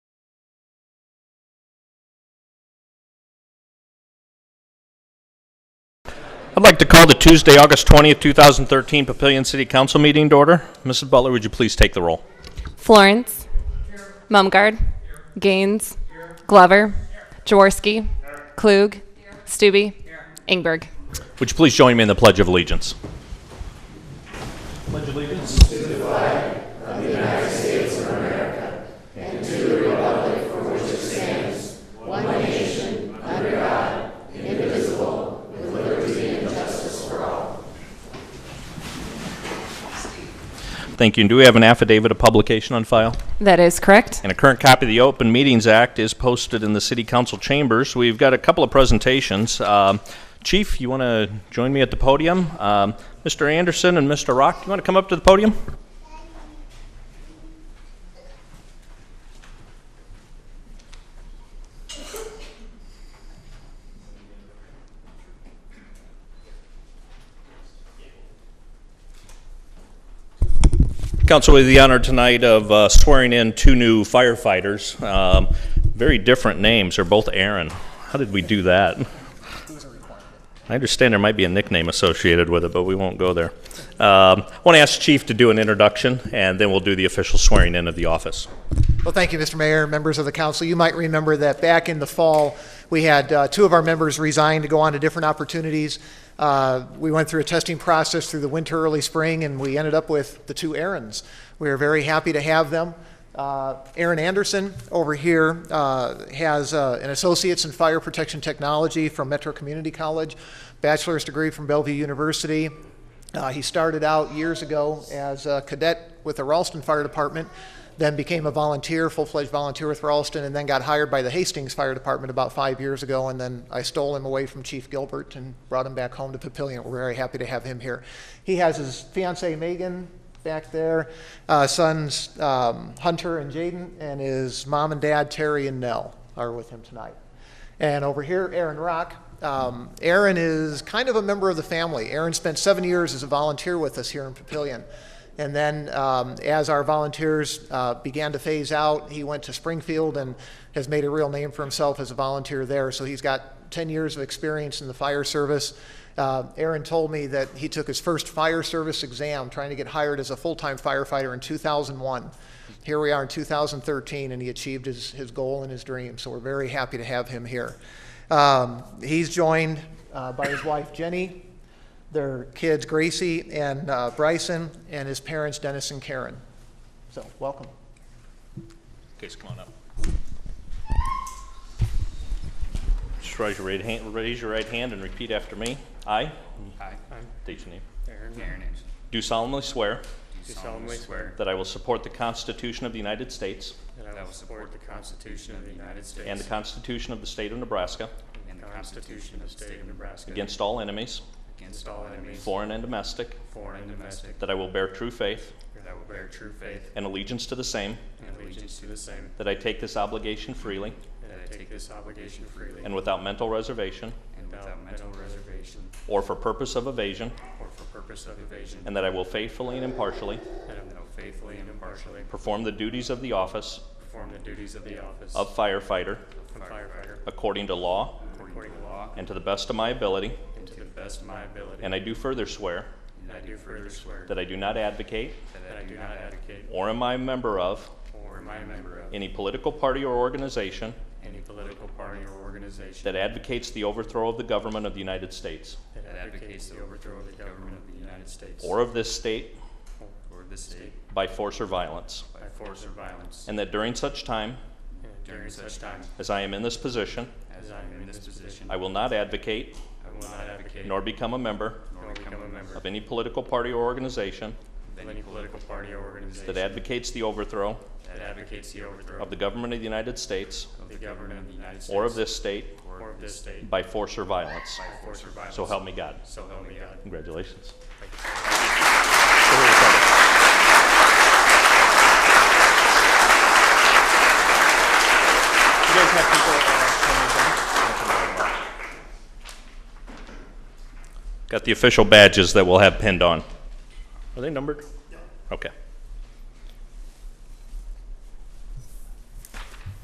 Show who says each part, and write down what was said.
Speaker 1: I'd like to call the Tuesday, August 20th, 2013 Papillion City Council meeting to order. Mrs. Butler, would you please take the roll?
Speaker 2: Florence. Mumgard. Gaines. Glover. Jaworski. Klug. Stube. Ingberg.
Speaker 1: Would you please join me in the Pledge of Allegiance? Pledge allegiance to the flag of the United States of America and to the republic for which it stands, one nation, under God, indivisible, with liberty and justice for all. Thank you. And do we have an affidavit of publication on file?
Speaker 2: That is correct.
Speaker 1: And a current copy of the Open Meetings Act is posted in the City Council chambers. We've got a couple of presentations. Um, Chief, you want to join me at the podium? Um, Mr. Anderson and Mr. Rock, you want to come up to the podium? Council, we have the honor tonight of uh, swearing in two new firefighters. Um, Very different names, they're both Aaron. How did we do that? I understand there might be a nickname associated with it, but we won't go there. Um, I want to ask Chief to do an introduction, and then we'll do the official swearing in of the office.
Speaker 3: Well, thank you, Mr. Mayor, members of the council. You might remember that back in the fall, we had uh, two of our members resign to go on to different opportunities. Uh, We went through a testing process through the winter, early spring, and we ended up with the two Aarons. We are very happy to have them. Uh, Aaron Anderson over here uh, has uh, an associate's in fire protection technology from Metro Community College, bachelor's degree from Bellevue University, uh, he started out years ago as a cadet with the Ralston Fire Department, then became a volunteer, full-fledged volunteer with Ralston, and then got hired by the Hastings Fire Department about five years ago. And then I stole him away from Chief Gilbert and brought him back home to Papillion. We're very happy to have him here. He has his fiancee Megan back there, uh, sons um, Hunter and Jaden, and his mom and dad Terry and Nell are with him tonight. And over here, Aaron Rock. Um, Aaron is kind of a member of the family. Aaron spent seven years as a volunteer with us here in Papillion. And then, um, as our volunteers uh, began to phase out, he went to Springfield and has made a real name for himself as a volunteer there. So he's got 10 years of experience in the fire service. Uh, Aaron told me that he took his first fire service exam trying to get hired as a full time firefighter in 2001 here we are in 2013, and he achieved his, his goal and his dream. So we're very happy to have him here. Um, he's joined uh, by his wife Jenny, their kids Gracie and uh, Bryson, and his parents Dennis and Karen. So welcome.
Speaker 1: Case, come on up. Just raise your right hand, raise your right hand and repeat after me. I,
Speaker 4: I, I'm
Speaker 1: state your name,
Speaker 4: Aaron. Aaron
Speaker 1: do solemnly swear
Speaker 4: Do solemnly swear
Speaker 1: that I will support the Constitution of the United States
Speaker 4: that I will support the Constitution of the United States
Speaker 1: and the Constitution of the State of Nebraska
Speaker 4: and the Constitution of the State of Nebraska
Speaker 1: against all enemies,
Speaker 4: against all enemies,
Speaker 1: foreign and domestic,
Speaker 4: foreign and domestic,
Speaker 1: that I will bear true faith
Speaker 4: that I will bear true faith
Speaker 1: and allegiance to the same,
Speaker 4: and allegiance to the same,
Speaker 1: that I take this obligation freely
Speaker 4: that I take this obligation freely
Speaker 1: and without mental reservation
Speaker 4: and without mental reservation
Speaker 1: or for purpose of evasion,
Speaker 4: or for purpose of evasion,
Speaker 1: and that I will faithfully and impartially
Speaker 4: that I will faithfully and impartially
Speaker 1: perform the duties of the office
Speaker 4: perform the duties of the office
Speaker 1: of firefighter
Speaker 4: of firefighter
Speaker 1: according to law
Speaker 4: according to law
Speaker 1: and to the best of my ability,
Speaker 4: and to the best of my ability.
Speaker 1: and I do further swear
Speaker 4: And I do further swear
Speaker 1: that I do not advocate
Speaker 4: that I do not advocate
Speaker 1: or am I a member of
Speaker 4: or am I a member of
Speaker 1: any political party or organization
Speaker 4: any political party or organization
Speaker 1: that advocates the overthrow of the government of the United States
Speaker 4: that advocates the overthrow of the government of the United States
Speaker 1: or of this state
Speaker 4: or this state
Speaker 1: by force or violence,
Speaker 4: by force or violence,
Speaker 1: and that during such time
Speaker 4: and during such time
Speaker 1: as I am in this position,
Speaker 4: as I am in this position,
Speaker 1: I
Speaker 4: I
Speaker 1: will not advocate
Speaker 4: will not advocate
Speaker 1: nor become a member
Speaker 4: nor become a member
Speaker 1: of any political party or organization
Speaker 4: of any political party or organization
Speaker 1: that advocates the overthrow
Speaker 4: that advocates the overthrow
Speaker 1: of the government of the United States
Speaker 4: of the government of the United States
Speaker 1: or of this state
Speaker 4: or of this state by
Speaker 1: by force or violence.
Speaker 4: force or violence.
Speaker 1: So help me God.
Speaker 4: So help me God.
Speaker 1: Congratulations.
Speaker 4: Thank you.
Speaker 1: uh, Got the official badges that we'll have pinned on. Are they numbered? Okay.